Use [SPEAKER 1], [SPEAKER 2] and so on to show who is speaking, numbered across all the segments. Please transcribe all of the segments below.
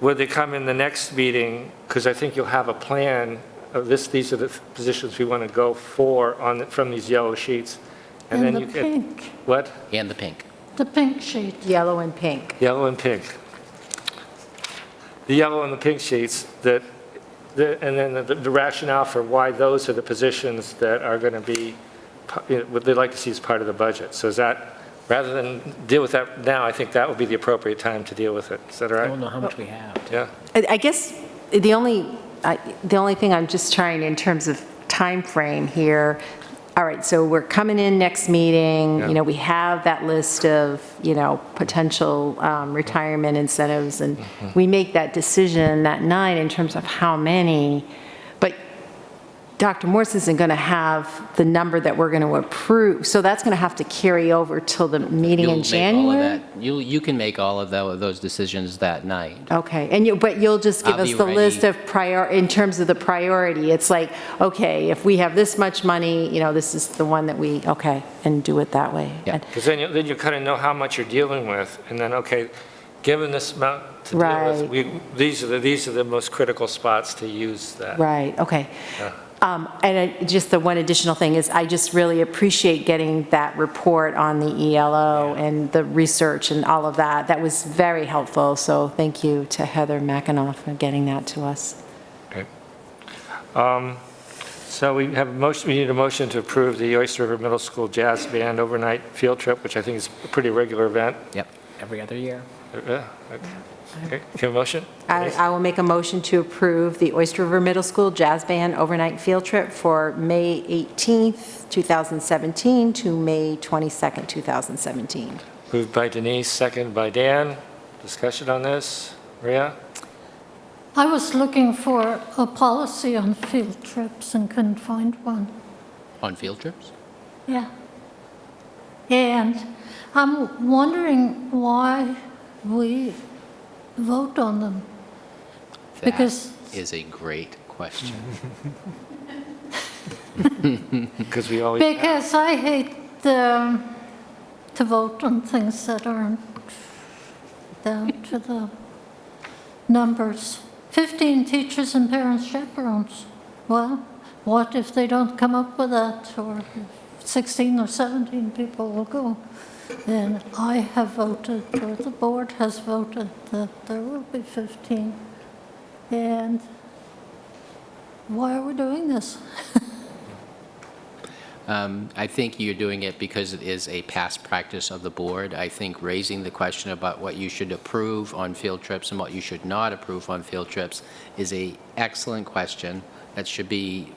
[SPEAKER 1] Would they come in the next meeting? Because I think you'll have a plan of this, these are the positions we want to go for on, the- from these yellow sheets. And then
[SPEAKER 2] And the
[SPEAKER 1] you can,
[SPEAKER 2] pink,
[SPEAKER 1] what?
[SPEAKER 3] and the pink.
[SPEAKER 2] the pink sheet.
[SPEAKER 4] Yellow and pink.
[SPEAKER 1] Yellow and pink. The yellow and the pink sheets that, the- and then the- the rationale for why those are the positions that are going to be, p- you know, what they'd like to see as part of the budget. So is that, rather than deal with that now, I think that would be the appropriate time to deal with it. Is that all
[SPEAKER 3] I
[SPEAKER 1] right?
[SPEAKER 3] don't know how much we have.
[SPEAKER 1] Yeah?
[SPEAKER 4] I I guess the only, I- the only thing I'm just trying in terms of time frame here, all right, so we're coming in next meeting,
[SPEAKER 1] Yeah.
[SPEAKER 4] you know, we have that list of, you know, potential um, retirement incentives, and
[SPEAKER 3] Mm-hmm.
[SPEAKER 4] we make that decision that night in terms of how many, but Dr. Morse isn't going to have the number that we're going to approve, so that's going to have to carry over till the meeting
[SPEAKER 3] You'll
[SPEAKER 4] in
[SPEAKER 3] make all of
[SPEAKER 4] January?
[SPEAKER 3] that- You'll, you can make all of tho- those decisions that night.
[SPEAKER 4] Okay, and you, but you'll just give
[SPEAKER 3] I'll
[SPEAKER 4] us
[SPEAKER 3] be
[SPEAKER 4] the list
[SPEAKER 3] ready.
[SPEAKER 4] of prior, in terms of the priority, it's like, okay, if we have this much money, you know, this is the one that we, okay, and do it that way.
[SPEAKER 3] Yeah.
[SPEAKER 1] Because then you, then you kind of know how much you're dealing with, and then, okay, given this amount to deal with,
[SPEAKER 4] Right.
[SPEAKER 1] we, these are the, these are the most critical spots to use that.
[SPEAKER 4] Right, okay. Um, And I- just the one additional thing is, I just really appreciate getting that report on the ELO and the research and all of that. That was very helpful, so thank you to Heather Mackinoff for getting that to us.
[SPEAKER 1] Okay. Um, So we have a motion, we need a motion to approve the Oyster River Middle School Jazz Band overnight field trip, which I think is a pretty regular event.
[SPEAKER 3] Yep, every other year.
[SPEAKER 1] Uh, yeah, okay. Okay, Can I have a motion?
[SPEAKER 4] I, I will make a motion to approve the Oyster River Middle School Jazz Band overnight field trip for May 18th, 2017 to May 22nd, 2017.
[SPEAKER 1] Moved by Denise, second by Dan. Discussion on this? Maria?
[SPEAKER 2] I was looking for a policy on field trips and couldn't find one.
[SPEAKER 3] On field trips?
[SPEAKER 2] Yeah. And I'm wondering why we vote on them. Because-
[SPEAKER 3] That is a great question.
[SPEAKER 1] Because we always,
[SPEAKER 2] Because I hate um, to vote on things that aren't down to the numbers. 15 teachers and parents chaperones. Well, what if they don't come up with that, or 16 or 17 people will go? Then I have voted, or the board has voted, that there will be 15. And why are we doing this?
[SPEAKER 3] Um, I think you're doing it because it is a past practice of the board. I think raising the question about what you should approve on field trips and what you should not approve on field trips is a excellent question that should be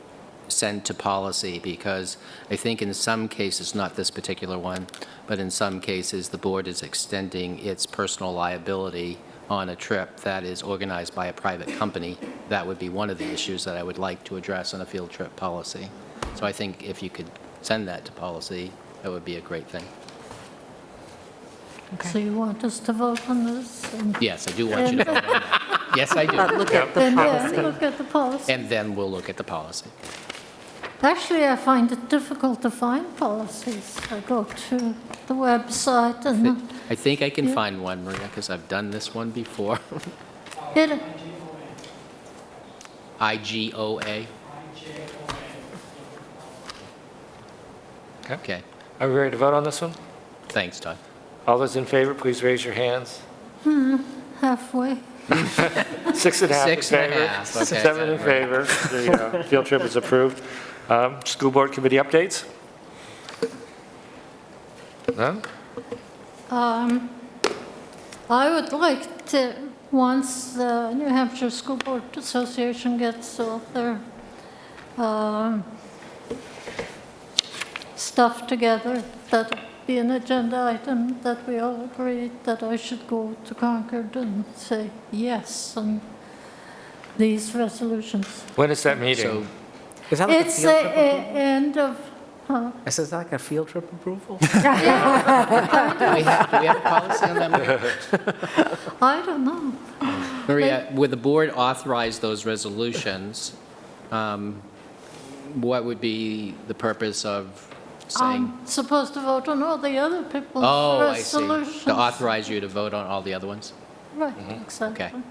[SPEAKER 3] sent to policy because I think in some cases, not this particular one, but in some cases, the board is extending its personal liability on a trip that is organized by a private company. That would be one of the issues that I would like to address in a field trip policy. So I think if you could send that to policy, that would be a great thing.
[SPEAKER 2] So you want us to vote on this? and-
[SPEAKER 3] Yes, I do want you to vote on that. Yes, I
[SPEAKER 4] But
[SPEAKER 3] do.
[SPEAKER 4] look at the
[SPEAKER 2] And then uh,
[SPEAKER 4] policy.
[SPEAKER 2] look at the policy.
[SPEAKER 3] And then we'll look at the policy.
[SPEAKER 2] Actually, I find it difficult to find policies. I go to the website and
[SPEAKER 3] I think I can find one, Maria, because I've done this one before.
[SPEAKER 2] it,
[SPEAKER 3] IGOA.
[SPEAKER 1] Okay.
[SPEAKER 3] Okay,
[SPEAKER 1] are we ready to vote on this one?
[SPEAKER 3] thanks, Todd.
[SPEAKER 1] All those in favor, please raise your hands.
[SPEAKER 2] halfway.
[SPEAKER 1] Six and a half in
[SPEAKER 3] Six and a
[SPEAKER 1] favor.
[SPEAKER 3] half, okay,
[SPEAKER 1] Seven in
[SPEAKER 3] so
[SPEAKER 1] favor.
[SPEAKER 3] we're-
[SPEAKER 1] The uh, field trip is approved. Um, School Board Committee updates? None?
[SPEAKER 2] Um, I would like to, once the New Hampshire School Board Association gets all their um, stuff together, that be an agenda item that we all agree that I should go to Concord and say yes on these resolutions.
[SPEAKER 1] When is that
[SPEAKER 3] So
[SPEAKER 1] meeting?
[SPEAKER 5] Is that like a
[SPEAKER 2] It's the
[SPEAKER 5] field trip?
[SPEAKER 2] e- end of, uh, huh?
[SPEAKER 5] Is that like a field trip approval?
[SPEAKER 3] do we have, do we have a policy on that? Maria?
[SPEAKER 2] I don't know.
[SPEAKER 3] Maria, would the board authorize those resolutions? um, What would be the purpose of saying?
[SPEAKER 2] I'm supposed to vote on all the other people's
[SPEAKER 3] Oh, I see.
[SPEAKER 2] resolutions.
[SPEAKER 3] To authorize you to vote on all the other ones?
[SPEAKER 5] Mm-hmm.
[SPEAKER 2] Right, exactly.